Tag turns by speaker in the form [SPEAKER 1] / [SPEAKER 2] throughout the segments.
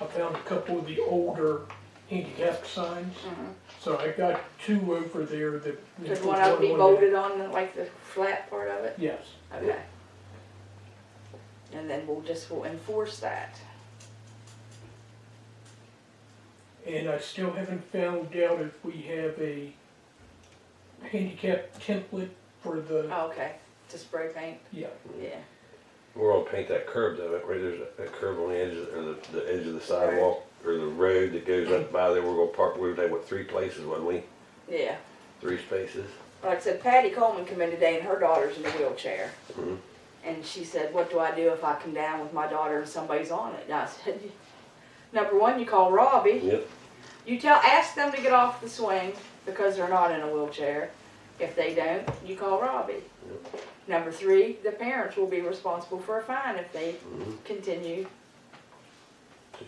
[SPEAKER 1] I found a couple of the older handicap signs. So I got two over there that.
[SPEAKER 2] Does Mm-hmm. one of them be
[SPEAKER 1] one-
[SPEAKER 2] bolted on, like the flat part of it?
[SPEAKER 1] Yes,
[SPEAKER 2] Okay. And then we'll just, we'll enforce that.
[SPEAKER 1] and I still haven't found out if we have a handicap template for the,
[SPEAKER 2] Oh, okay, to spray paint,
[SPEAKER 1] yeah.
[SPEAKER 2] yeah.
[SPEAKER 3] We're gonna paint that curb though, right there's a- a curb on the edge, of- or the, the edge of the sidewalk, or the road that goes up by there, we're gonna park, we were there, what, three places, wasn't we?
[SPEAKER 2] Yeah,
[SPEAKER 3] Three spaces?
[SPEAKER 2] like I said, Patty Coleman come in today and her daughter's in a wheelchair.
[SPEAKER 3] Mhm.
[SPEAKER 2] And she said, what do I do if I come down with my daughter and somebody's on it? And I said, number one, you call Robbie.
[SPEAKER 3] Yep.
[SPEAKER 2] You tell, ask them to get off the swing because they're not in a wheelchair. If they don't, you call Robbie. Number three, the parents will be responsible for a fine if they
[SPEAKER 3] Mhm.
[SPEAKER 2] continue.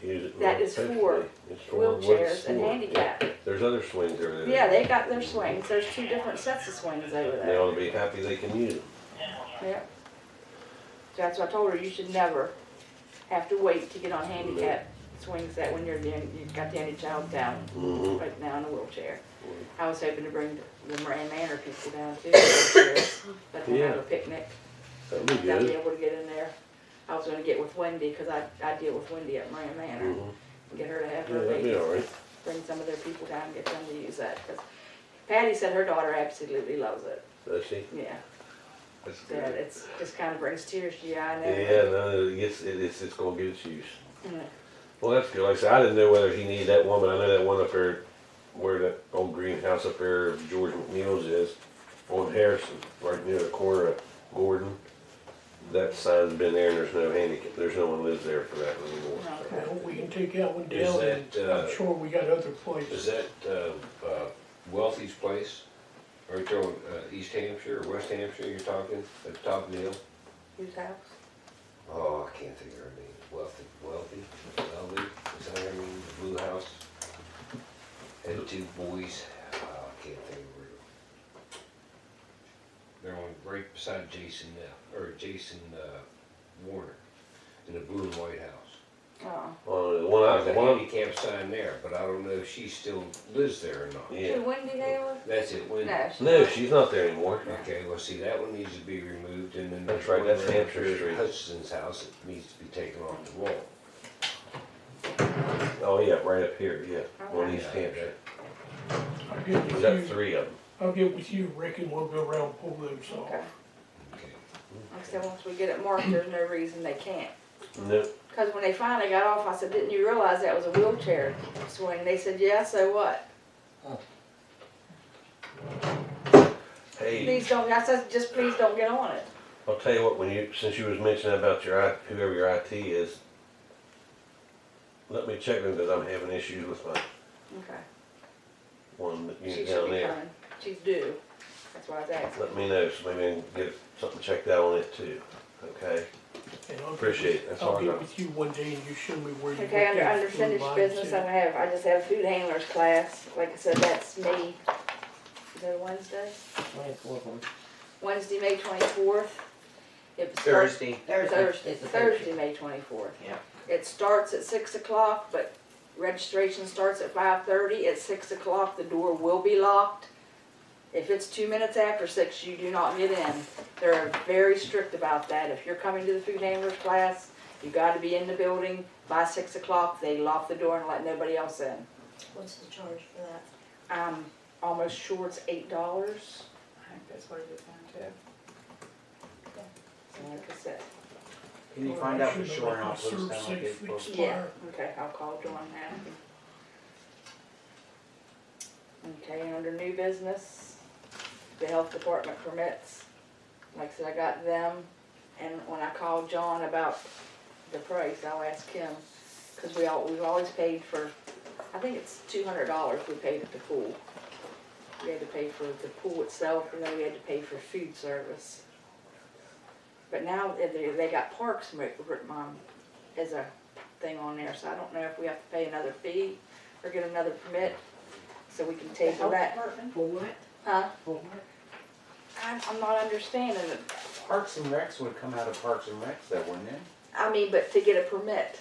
[SPEAKER 3] To use it
[SPEAKER 2] That is
[SPEAKER 3] more
[SPEAKER 2] for
[SPEAKER 3] efficiently. It's for what it's
[SPEAKER 2] wheelchairs and
[SPEAKER 3] for.
[SPEAKER 2] handicap.
[SPEAKER 3] Yeah. There's other swings over there.
[SPEAKER 2] Yeah, they got their swings. There's two different sets of swings over
[SPEAKER 3] They
[SPEAKER 2] there.
[SPEAKER 3] ought to be happy they can use them.
[SPEAKER 2] Yep. That's what I told her, you should never have to wait to get on handicap swing set when you're, the- you've got the only child down,
[SPEAKER 3] Mhm.
[SPEAKER 2] right now in a wheelchair. I was hoping to bring the the Moran Manor people down too, wheelchairs, but we'll have a
[SPEAKER 3] Yeah.
[SPEAKER 2] picnic.
[SPEAKER 3] That'd be
[SPEAKER 2] They'll be
[SPEAKER 3] good.
[SPEAKER 2] able to get in there. I was gonna get with Wendy, cause I, I deal with Wendy at Moran Manor,
[SPEAKER 3] Mhm.
[SPEAKER 2] and get her to have
[SPEAKER 3] Yeah,
[SPEAKER 2] her
[SPEAKER 3] that'd be
[SPEAKER 2] baby,
[SPEAKER 3] alright.
[SPEAKER 2] bring some of their people down and get them to use that, cause Patty said her daughter absolutely loves it,
[SPEAKER 3] Does she?
[SPEAKER 2] yeah.
[SPEAKER 3] That's
[SPEAKER 2] So
[SPEAKER 3] good.
[SPEAKER 2] it's, just kinda brings tears to your eye now.
[SPEAKER 3] Yeah, no, it gets, it- it's, it's gonna get its use.
[SPEAKER 2] Mm.
[SPEAKER 3] Well, that's good. Like I said, I didn't know whether he needed that one, but I know that one up there, where that old greenhouse up there, of George McNeil's is, on Harrison, right near the corner of Gordon. That sign's been there and there's no handicap, there's no one lives there for that anymore. so.
[SPEAKER 1] Well, we can take that one
[SPEAKER 4] Is
[SPEAKER 1] down and
[SPEAKER 4] that, uh,
[SPEAKER 1] I'm sure we got other
[SPEAKER 4] Is
[SPEAKER 1] places.
[SPEAKER 4] that uh, uh, Wealthy's place? Right there on uh, East Hampshire or West Hampshire you're talking, at the top of the hill?
[SPEAKER 2] Whose house?
[SPEAKER 4] Oh, I can't think of her name. Wealthy, Wealthy, Wealthy, is that her name? The Blue House? Had two boys, oh, I can't think of her. They're on, right beside Jason now, or Jason uh, Warner, in the Blue and White House.
[SPEAKER 2] Oh,
[SPEAKER 3] On the one I,
[SPEAKER 4] There's
[SPEAKER 3] the
[SPEAKER 4] a
[SPEAKER 3] one,
[SPEAKER 4] handicap sign there, but I don't know if she still lives there or not.
[SPEAKER 3] Yeah.
[SPEAKER 2] Who, Wendy Hale?
[SPEAKER 4] That's it, Wendy.
[SPEAKER 2] No.
[SPEAKER 3] no, she's not there anymore.
[SPEAKER 4] Okay, well, see, that one needs to be removed, and then.
[SPEAKER 3] That's right, that's
[SPEAKER 4] whatever
[SPEAKER 3] Hampshire Street.
[SPEAKER 4] Hutchison's house, it needs to be taken off the wall.
[SPEAKER 3] Oh, yeah, right up here, yeah, on
[SPEAKER 2] Okay.
[SPEAKER 3] East Hampshire.
[SPEAKER 1] I'll get
[SPEAKER 3] There's
[SPEAKER 1] with
[SPEAKER 3] that
[SPEAKER 1] you,
[SPEAKER 3] three of them.
[SPEAKER 1] I'll get with you, Rick, and we'll go around and pull those off.
[SPEAKER 2] Okay.
[SPEAKER 4] Okay.
[SPEAKER 2] I said, once we get it marked, there's no reason they can't.
[SPEAKER 3] No,
[SPEAKER 2] Cause when they finally got off, I said, didn't you realize that was a wheelchair swing? They said, yeah, so what?
[SPEAKER 3] hey,
[SPEAKER 2] Please don't, I said, just please don't get on it.
[SPEAKER 3] I'll tell you what, when you, since you was mentioning about your, I- whoever your IT is, let me check them, because I'm having issues with my
[SPEAKER 2] Okay.
[SPEAKER 3] one that
[SPEAKER 2] She
[SPEAKER 3] you
[SPEAKER 2] should
[SPEAKER 3] down
[SPEAKER 2] be
[SPEAKER 3] there.
[SPEAKER 2] fine. She's due. That's why I was asking.
[SPEAKER 3] Let me know, so maybe I can get something checked out on it too, okay?
[SPEAKER 1] And I'll get-
[SPEAKER 3] Appreciate it, that's all
[SPEAKER 1] I'll
[SPEAKER 3] I
[SPEAKER 1] get
[SPEAKER 3] got.
[SPEAKER 1] with you one day and you show me where you.
[SPEAKER 2] Okay,
[SPEAKER 1] looked
[SPEAKER 2] under,
[SPEAKER 1] at
[SPEAKER 2] under
[SPEAKER 1] the blue
[SPEAKER 2] finished
[SPEAKER 1] lines
[SPEAKER 2] business, I'm
[SPEAKER 1] at.
[SPEAKER 2] gonna have, I just have food handlers class. Like I said, that's me. Is that Wednesday? Wednesday, May twenty-fourth. It starts
[SPEAKER 5] Thursday.
[SPEAKER 2] Thursday,
[SPEAKER 5] It's a
[SPEAKER 2] Thursday, May twenty-fourth.
[SPEAKER 5] Yeah.
[SPEAKER 2] It starts at six o'clock, but registration starts at five thirty. At six o'clock, the door will be locked. If it's two minutes after six, you do not get in. They're very strict about that. If you're coming to the food handlers class, you gotta be in the building by six o'clock. They lock the door and let nobody else in.
[SPEAKER 6] What's the charge for that?
[SPEAKER 2] I'm almost sure it's eight dollars.
[SPEAKER 6] I think that's what it is down
[SPEAKER 2] And like I said,
[SPEAKER 5] Can you
[SPEAKER 1] Or
[SPEAKER 5] find
[SPEAKER 1] I
[SPEAKER 5] out for
[SPEAKER 1] should have
[SPEAKER 5] sure
[SPEAKER 1] let
[SPEAKER 5] how
[SPEAKER 1] my
[SPEAKER 5] it looks
[SPEAKER 1] serve
[SPEAKER 5] down like
[SPEAKER 1] safe
[SPEAKER 5] it's supposed to?
[SPEAKER 2] Yeah,
[SPEAKER 1] expire.
[SPEAKER 2] okay, I'll call Dawn now. Okay, under new business, the health department permits, like I said, I got them, and when I called John about the price, I'll ask him, cause we all, we've always paid for, I think it's two hundred dollars we paid at the pool. We had to pay for the pool itself, and then we had to pay for food service. But now, eh, they, they got parks, mo- um, as a thing on there, so I don't know if we have to pay another fee or get another permit, so we can table that.
[SPEAKER 5] For what?
[SPEAKER 2] Huh?
[SPEAKER 5] For what?
[SPEAKER 2] I'm, I'm not understanding it.
[SPEAKER 5] Parks and Recs would come out of Parks and Recs though, wouldn't it?
[SPEAKER 2] I mean, but to get a permit,